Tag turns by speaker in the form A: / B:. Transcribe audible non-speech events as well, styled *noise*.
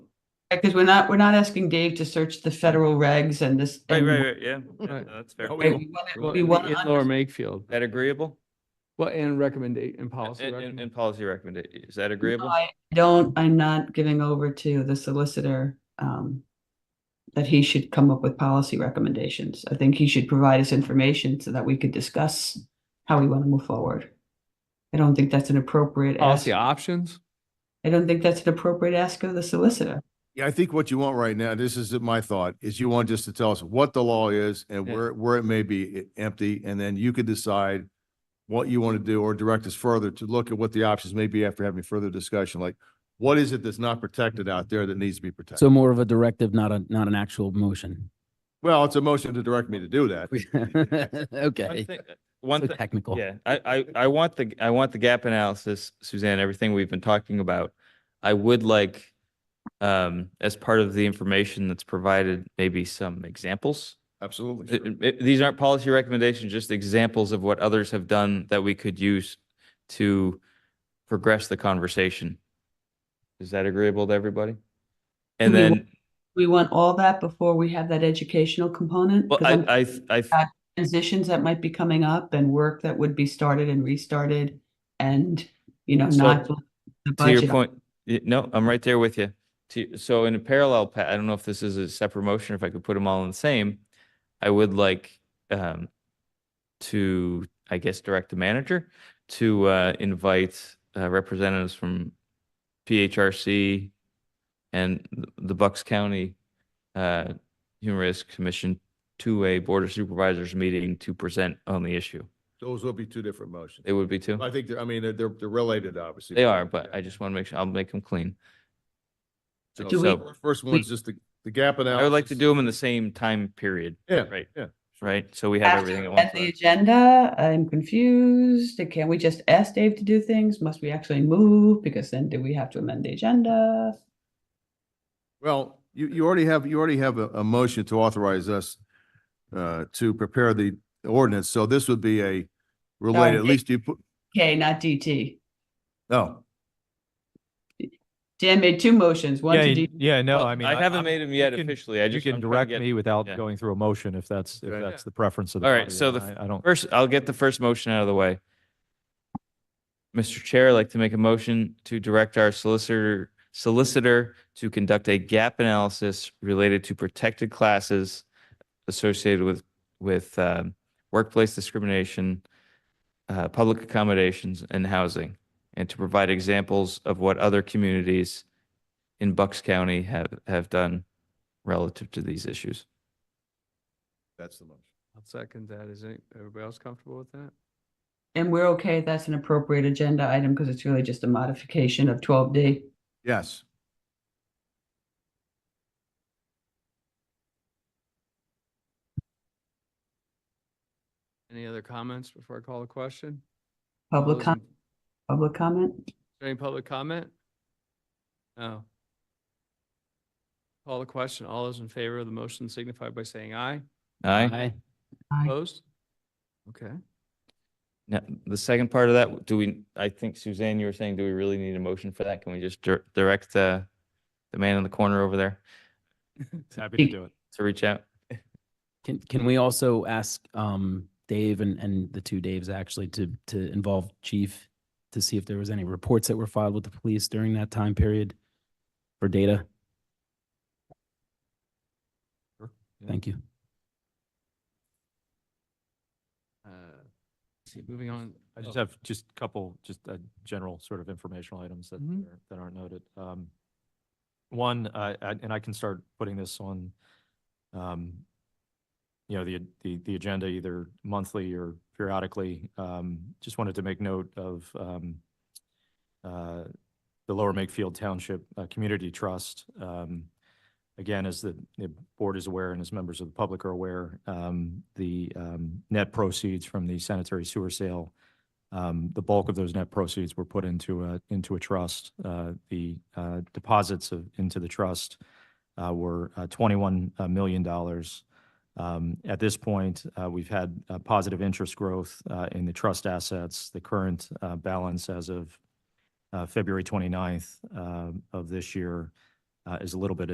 A: Because we're not, we're not asking Dave to search the federal regs and this.
B: Right,
A: and-
B: right, right, yeah, yeah,
C: Right.
B: no, that's fair.
C: Oh,
A: Right,
C: Well,
A: we wanna-
C: Well,
A: we
C: in-
A: wanna
C: in
A: under-
C: Lower Makefield,
B: That agreeable?
C: well, and recommendation and policy.
B: And- And,
C: recommend-
B: and policy recommendation, is that
A: No,
B: agreeable?
A: I Don't, I'm not giving over to the solicitor, um, that he should come up with policy recommendations. I think he should provide us information so that we could discuss how we want to move forward. I don't think that's an appropriate ask.
C: Policy options?
A: I don't think that's an appropriate ask of the solicitor.
D: Yeah, I think what you want right now, this is my thought, is you want just to tell us what the law is and
C: Yeah.
D: where, where it may be e- empty, and then you could decide what you want to do or direct us further to look at what the options may be after having further discussion, like what is it that's not protected out there that needs to be
E: So
D: protected?
E: more of a directive, not a, not an actual motion. *laughs*
D: Well, it's a motion to direct me to do that.
B: *laughs* One
E: Okay.
B: thing, one
E: So
B: thing-
E: technical.
B: yeah, I, I, I want the, I want the gap analysis, Suzanne, everything we've been talking about. I would like, um, as part of the information that's provided, maybe some examples.
D: Absolutely.
B: Th-
D: sure.
B: it- These aren't policy recommendations, just examples of what others have done that we could use to progress the conversation. Is that agreeable to everybody? And
A: Do we wa-
B: then,
A: We want all that before we have that educational component.
B: well,
A: 'cause I'm-
B: I, I, th- I, th-
A: transitions that might be coming up and work that would be started and restarted and, you know,
B: So,
A: not. the
B: to your
A: budget.
B: point, y- no, I'm right there with you. To, so in a parallel, pa- I don't know if this is a separate motion, if I could put them all in the same, I would like, um, to, I guess, direct the manager to, uh, invite, uh, representatives from PHRC and th- the Bucks County, uh, Human Rights Commission to a Board of Supervisors meeting to present on the issue.
D: Those will be two different motions.
B: It would be too.
D: I think, they're- I mean, they're, they're they're related, obviously.
B: They are, but I just want to make sure, I'll make them clean.
D: So-
A: Do
D: so
A: we-
D: first- First one's just the, the gap analysis.
B: I would like to do them in the same time period.
D: Yeah,
B: Right,
D: yeah.
B: right? So we have
A: Have
B: everything
A: to
B: at
A: add
B: once.
A: the agenda, I'm confused. Can we just ask Dave to do things? Must we actually move? Because then do we have to amend the agenda?
D: Well, you, you already have, you already have a, a motion to authorize us uh, to prepare the ordinance, so this would be a related, at
A: Dave.
D: least you put, oh,
A: Okay, not DT.
D: no.
A: Dan made two motions, one
F: Yeah,
A: to
F: y-
A: D.
F: yeah, no,
B: Well,
F: I mean.
B: I haven't
F: I'm-
B: made them
F: you
B: yet
F: can-
B: officially. I
F: You
B: just.
F: can
B: I'm trying
F: direct
B: to get-
F: me without
B: yeah.
F: going through a motion if that's, if
D: Okay.
F: that's the preference of the.
B: All right,
F: party.
B: so the
F: I- I don't,
B: First, I'll get the first motion out of the way. Mr. Chair, I'd like to make a motion to direct our solicitor, solicitor to conduct a gap analysis related to protected classes associated with, with um, workplace discrimination, uh, public accommodations and housing, and to provide examples of what other communities in Bucks County have, have done relative to these issues.
D: That's the motion.
C: I'll second that. Is any- everybody else comfortable with that?
A: And we're okay, that's an appropriate agenda item because it's really just a modification of twelve D.
D: Yes.
C: Any other comments before I call the question? All
A: Public
C: those
A: com,
C: in- Is
A: public comment?
C: there Any public comment? No. Call the question. All those in favor of the motion signify by saying aye.
B: Aye?
E: Aye.
A: Aye.
C: Opposed? Okay.
B: Now, the second part of that, do we, I think Suzanne, you were saying, do we really need a motion for that? Can we just dir- direct uh, the man in the corner over there
F: happy to
A: Speak.
F: do it.
B: to reach out?
E: Can, can we also ask, um, Dave and, and the two Daves actually to, to involve chief to see if there was any reports that were filed with the police during that time period for data? Thank you.
C: Uh, see, Moving on.
F: I
C: Oh.
F: just have just a couple, just uh general sort of informational items that
C: Mhm.
F: are- that aren't noted. Um, One, uh, I- and I can start putting this on, um, you know, the, the, the agenda either monthly or periodically. Um, Just wanted to make note of um, uh, the Lower Makefield Township uh, Community Trust. Um, Again, as the, the board is aware and as members of the public are aware, um, the um, net proceeds from the sanitary sewer sale um, the bulk of those net proceeds were put into a, into a trust. Uh, the, uh, deposits of, into the trust, uh, were, uh, twenty-one million dollars. Um, at this point, uh, we've had, uh, positive interest growth, uh, in the trust assets. The current, uh, balance as of, uh, February 29th, um, of this year, uh, is a little bit